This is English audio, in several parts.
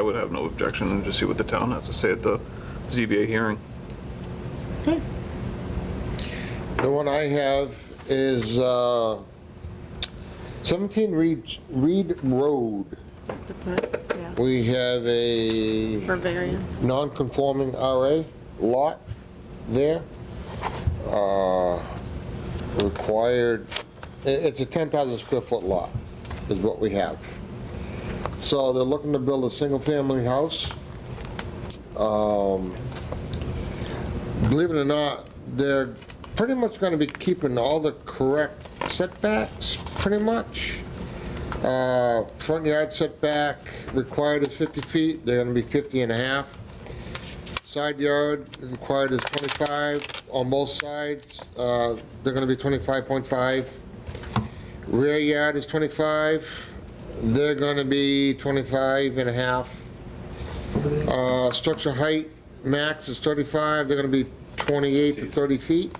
I would have no objection and just see what the town has to say at the ZBA hearing. The one I have is uh, 17 Reed, Reed Road. to put, yeah, We have a for variance. non-conforming RA lot there. Uh, Required, i- it's a 10,000 square foot lot, is what we have. So they're looking to build a single-family house. Um, Believe it or not, they're pretty much going to be keeping all the correct setbacks, pretty much. Uh, Front yard setback required is 50 feet, they're gonna be 50 and a half. Side yard required is 25 on both sides, uh, they're gonna be 25.5. Rear yard is 25, they're gonna be 25 and a half. Uh, Structure height max is 35, they're gonna be 28 to 30 feet.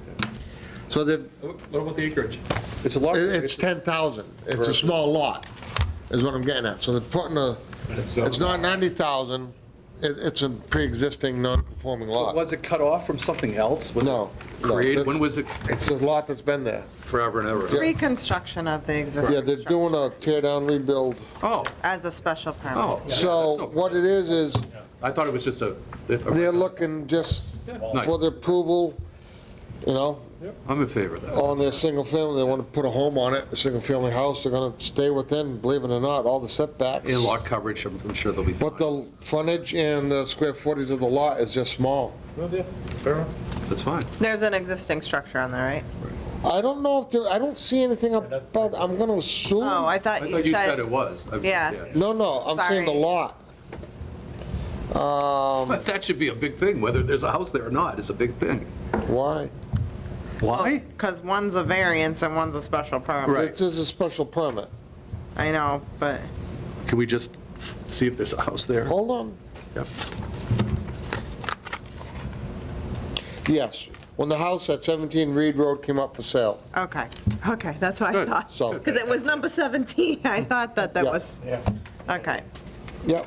So they're, What about the acreage? It's a lot. it- It's 10,000. It's a small lot, is what I'm getting at. So they're putting a, it's not 90,000, it, it's a pre-existing non-conforming lot. Was it cut off from something else? Was it No, no, Created, that- when was it? It's a lot that's been there. Forever and It's ever. reconstruction of the Yeah, existing they're doing a tear down, rebuild. Oh, as a special permit. oh. So what it is, is I thought it was just a. they're looking just for the approval, you know, I'm in favor of that. on their single family, they want to put a home on it, a single family house, they're gonna stay within, believe it or not, all the setbacks. In lot coverage, I'm I'm sure they'll be But fine. the frontage and the square footage of the lot is just small. That's fine. There's an existing structure on there, right? I don't know if there, I don't see anything about, I'm gonna assume, Oh, I I thought you thought you said said, it was. I was just- Yeah. no, no, I'm saying the Sorry. lot. Um, But that should be a big thing, whether there's a house there or not, is a big thing. why? Why? because one's a variance and one's a special permit. Right. This is a special permit. I know, but Can we just see if there's a house there? Hold on. Yep. Yes, when the house at 17 Reed Road came up for sale. Okay, okay, that's what I Good. thought. So- Because it was number 17, I thought that that Yeah. was, okay, Yep,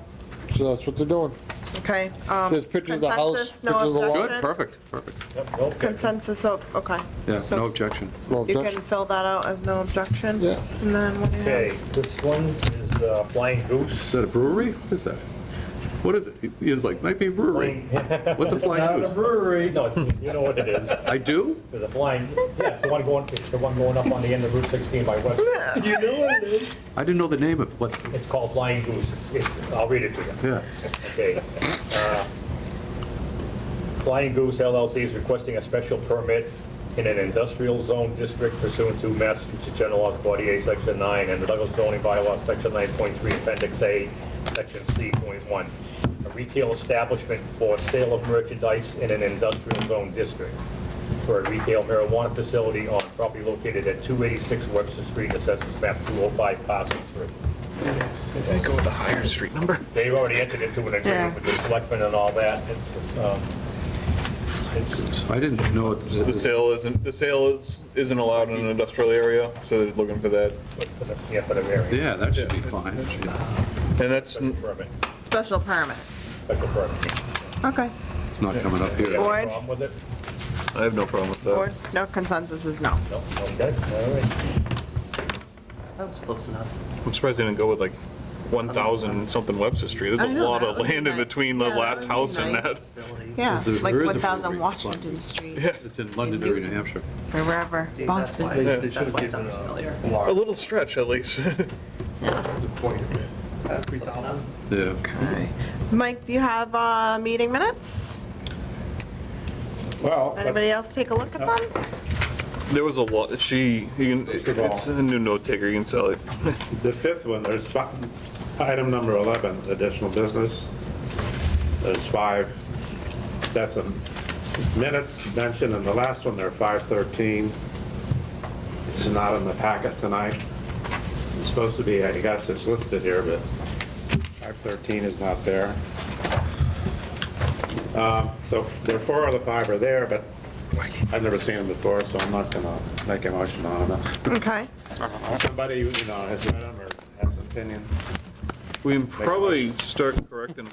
so that's what they're doing. okay. um, There's pictures of the house, consensus, no pictures of the lot. Good, objection? perfect, perfect. Consensus, oh, okay. Yeah, So no objection. No You can objection. fill that out as no objection? Yeah. And then what do you have? Okay, this one is uh, Flying Is Goose. that a brewery? What is that? What is it? He- He was like, might be a brewery. What's a flying Not a goose? brewery, no, you know what it is. I do? There's a flying, yeah, it's the one going, it's the one going up on the end of Route 16 by West. You know what it is? I didn't know the name of what, It's called Flying Goose. It's- It's, I'll read it to you. yeah. Okay. uh, Flying Goose LLC is requesting a special permit in an industrial zone district pursuant to Massachusetts General Laws 48, Section 9, and the Douglas zoning bylaws, Section 9.3, Appendix A, Section C.1. A retail establishment for sale of merchandise in an industrial zone district for a retail marijuana facility on property located at 286 Webster Street, assesses map 205, parcel 3. Go with a higher street number. They've already entered into an Yeah. agreement with the selectmen and all that. It's, um, it's- I didn't know. The it- sale isn't, the sale is, isn't allowed in an industrial area, so they're looking for that. for the- Yeah, for the variance, Yeah, that should be fine. And that's, special permit, Special permit, special permit. okay. It's not coming up You have here. any Board? problem with it? I have no problem with Board, that. no consensus is no. No, okay, all right. I'm surprised they didn't go with like 1,000 something Webster Street. There's I a know, lot that of would be land in nice. between the Yeah, that last would be house and that. nice. Yeah, There- like there is a 1,000 brewery. Washington Street, It's in Londonderry, New Hampshire. or wherever, Boston. Yeah. A little stretch at least. Yeah. Okay. Mike, do you have uh, meeting minutes? Well, Anybody else take a look at them? There was a lot, she, you can, it's a new note taker, you can sell it. The fifth one, there's fi- item number 11, additional business. There's five sets of minutes mentioned, and the last one, there are 513. It's not in the packet tonight. It's supposed to be, I guess it's listed here, but 513 is not there. Um, So there are four of the five are there, but I've never seen them before, so I'm not gonna make a motion on them Okay, somebody, you know, has read them or has an opinion. We can probably start correcting